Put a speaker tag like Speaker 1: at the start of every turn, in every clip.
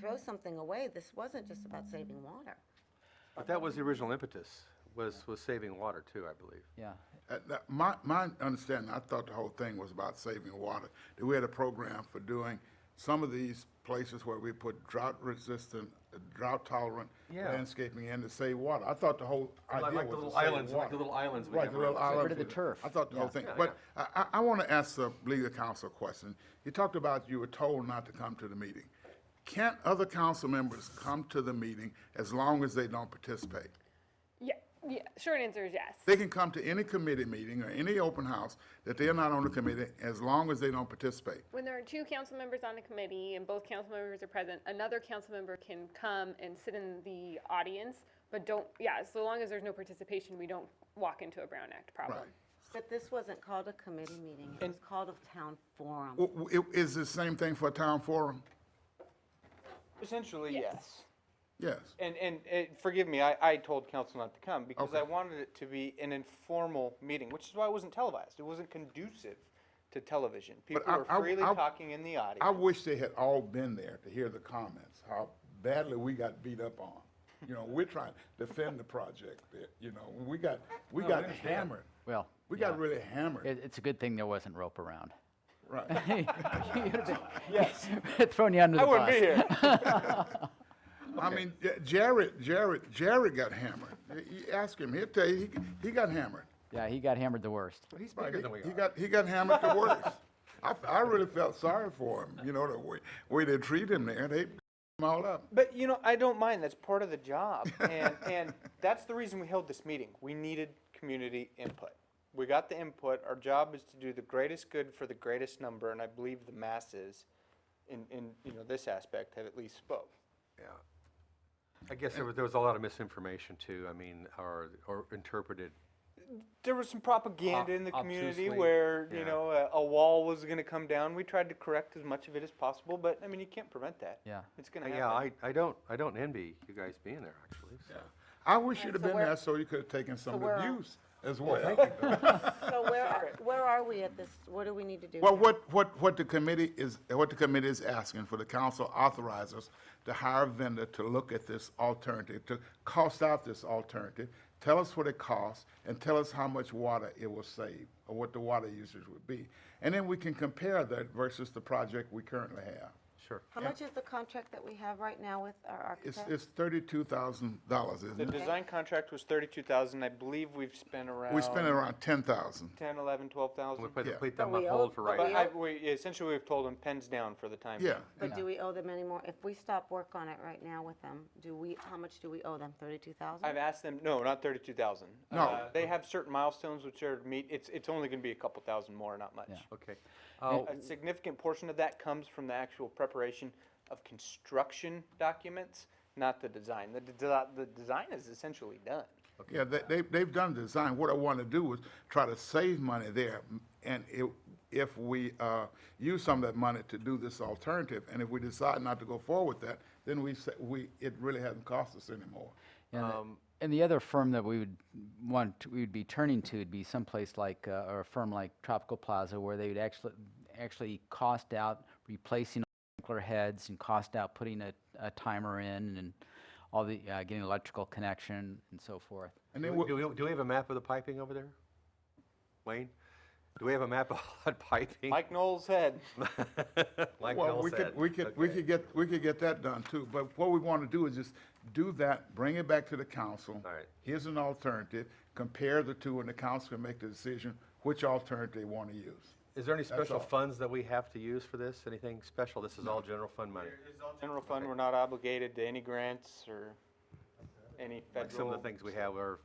Speaker 1: throw something away. This wasn't just about saving water.
Speaker 2: But that was the original impetus, was, was saving water too, I believe.
Speaker 3: Yeah,
Speaker 4: Uh, that- My, my understanding, I thought the whole thing was about saving water. That we had a program for doing some of these places where we put drought resistant, uh, drought tolerant
Speaker 2: Yeah.
Speaker 4: landscaping in to save water. I thought the whole
Speaker 2: Like-
Speaker 4: idea
Speaker 2: like the
Speaker 4: was to
Speaker 2: little
Speaker 4: save
Speaker 2: islands, like
Speaker 4: water.
Speaker 2: the little islands we
Speaker 4: Right,
Speaker 2: have
Speaker 4: the little
Speaker 2: around the city.
Speaker 4: islands.
Speaker 3: Rid of the
Speaker 4: we-
Speaker 3: turf.
Speaker 4: I thought the whole
Speaker 3: Yeah.
Speaker 4: thing, but I, I, I want to ask the legal counsel a question. You talked about you were told not to come to the meeting. Can't other council members come to the meeting as long as they don't participate?
Speaker 5: Yeah, yeah, short answer is yes.
Speaker 4: They can come to any committee meeting or any open house that they're not on the committee as long as they don't participate.
Speaker 5: When there are two council members on a committee and both council members are present, another council member can come and sit in the audience, but don't, yeah, so long as there's no participation, we don't walk into a Brown Act problem.
Speaker 4: Right.
Speaker 1: But this wasn't called a committee meeting. It was called a town forum.
Speaker 4: W- w- it- Is the same thing for a town forum?
Speaker 6: Essentially, yes.
Speaker 4: Yes.
Speaker 6: And, and, and forgive me, I, I told council not to come because I wanted it to be an informal meeting, which is why it wasn't televised. It wasn't conducive to television. People
Speaker 4: I-
Speaker 6: were
Speaker 4: I-
Speaker 6: freely
Speaker 4: I-
Speaker 6: talking in the audience.
Speaker 4: I wish they had all been there to hear the comments, how badly we got beat up on. You know, we're trying to defend the project, that, you know, we got, we got hammered.
Speaker 3: well.
Speaker 4: We got
Speaker 3: yeah.
Speaker 4: really hammered,
Speaker 3: It, it's a good thing there wasn't rope around.
Speaker 4: right.
Speaker 3: You'd have been-
Speaker 6: Yes.
Speaker 3: Thrown you under
Speaker 6: I
Speaker 3: the
Speaker 6: wouldn't
Speaker 3: bus.
Speaker 6: be here.
Speaker 4: I mean, J- Jared, Jared, Jared got hammered. You you ask him, he'll tell you, he, he got hammered.
Speaker 3: Yeah, he got hammered the worst.
Speaker 2: But he's
Speaker 4: Right,
Speaker 2: bigger
Speaker 4: he-
Speaker 2: than we
Speaker 4: He
Speaker 2: are.
Speaker 4: got, he got hammered the worst. I, I really felt sorry for him, you know, the way, way they treat him there, they beat him all up.
Speaker 6: But you know, I don't mind. That's part of the job, and and that's the reason we held this meeting. We needed community input. We got the input. Our job is to do the greatest good for the greatest number, and I believe the masses, in in you know this aspect, have at least spoke.
Speaker 2: Yeah. I guess there was, there was a lot of misinformation too, I mean, or, or interpreted.
Speaker 6: There was some propaganda in the community
Speaker 2: obtusely,
Speaker 6: where
Speaker 2: yeah.
Speaker 6: you know a, a wall was going to come down. We tried to correct as much of it as possible, but I mean you can't prevent that.
Speaker 3: Yeah.
Speaker 6: it's
Speaker 4: Uh,
Speaker 6: going to happen.
Speaker 2: Yeah, I, I don't, I don't envy you guys being there, actually. so.
Speaker 4: I wish you'd have
Speaker 1: so
Speaker 4: been
Speaker 1: where-
Speaker 4: there so you could have taken some of
Speaker 1: where
Speaker 4: the
Speaker 1: are-
Speaker 4: abuse as well.
Speaker 1: So where, are- where are we at this? What do we need to do?
Speaker 4: Well, what, what, what the committee is, what the committee is asking for the council authorizes to hire a vendor to look at this alternative, to cost out this alternative, tell us what it costs, and tell us how much water it will save, or what the water usage would be. And then we can compare that versus the project we currently have.
Speaker 2: Sure.
Speaker 1: How much is the contract that we have right now with our
Speaker 4: It's,
Speaker 1: architect?
Speaker 4: it's thirty-two thousand dollars,
Speaker 6: the
Speaker 4: isn't it?
Speaker 6: design contract was thirty-two thousand. I believe we've spent around
Speaker 4: We spent around ten thousand.
Speaker 6: 10, 11, 12,000.
Speaker 2: We put,
Speaker 4: Yeah.
Speaker 2: put them
Speaker 1: But
Speaker 2: on
Speaker 1: we
Speaker 2: hold
Speaker 1: owe-
Speaker 2: for
Speaker 1: but
Speaker 2: right
Speaker 6: But
Speaker 1: we
Speaker 2: now.
Speaker 6: I, we, essentially, we've told them pens down for the time.
Speaker 4: Yeah,
Speaker 1: But do we owe them any more? If we stop work on it right now with them, do we, how much do we owe them? Thirty-two thousand?
Speaker 6: I've asked them, no, not thirty-two thousand.
Speaker 4: No.
Speaker 6: Uh, They have certain milestones which are meet, it's, it's only gonna be a couple thousand more, not much.
Speaker 2: Okay. Uh,
Speaker 6: A significant portion of that comes from the actual preparation of construction documents, not the design. The, desi- the design is essentially done.
Speaker 4: yeah, they, they, they've done design, what I wanna do is try to save money there, and if, if we, uh, use some of that money to do this alternative, and if we decide not to go forward with that, then we say, we, it really hasn't cost us anymore.
Speaker 3: And, the- and the other firm that we would want, we would be turning to would be someplace like, uh, or a firm like Tropical Plaza, where they would actually, actually cost out replacing sprinkler heads and cost out putting a, a timer in and all the, uh, getting electrical connection and so forth.
Speaker 4: And
Speaker 2: Do
Speaker 4: then,
Speaker 2: we-
Speaker 4: we'll-
Speaker 2: do we, do we have a map of the piping over there? Wayne? Do we have a map of all that piping?
Speaker 6: Mike Knowles said,
Speaker 2: Like
Speaker 4: well,
Speaker 2: Bill
Speaker 4: we could,
Speaker 2: said.
Speaker 4: we could, we could get, we could get that done too, but what we wanna do is just do that, bring it back to the council.
Speaker 2: All right.
Speaker 4: Here's an alternative, compare the two, and the council can make the decision which alternative they wanna use.
Speaker 2: Is there any special
Speaker 4: all.
Speaker 2: funds that we have to use for this? Anything special? This is all general fund money.
Speaker 6: general fund, we're not obligated to any grants or any
Speaker 2: Like some
Speaker 6: federal.
Speaker 2: of the things we have are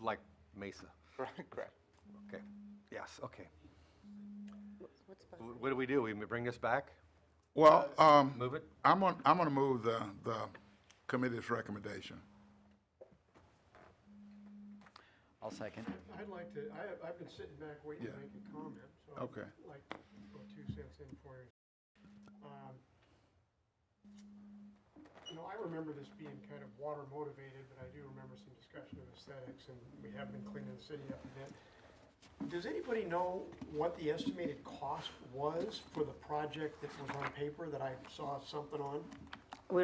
Speaker 2: like Mesa.
Speaker 6: Correct.
Speaker 2: Okay. Yes, okay.
Speaker 1: What's
Speaker 2: Wh- What do we do? We m- bring this back?
Speaker 4: Well, um.
Speaker 2: Move it?
Speaker 4: I'm gonna, I'm gonna move the, the committee's recommendation.
Speaker 3: I'll second.
Speaker 7: I'd like to, I have, I've been sitting back waiting to
Speaker 4: Yeah.
Speaker 7: make a comment, so
Speaker 4: Okay.
Speaker 7: I'd like to put two cents in for you. Um, You know, I remember this being kind of water motivated, but I do remember some discussion of aesthetics, and we have been cleaning the city up a bit. Does anybody know what the estimated cost was for the project that was on paper that I saw something on?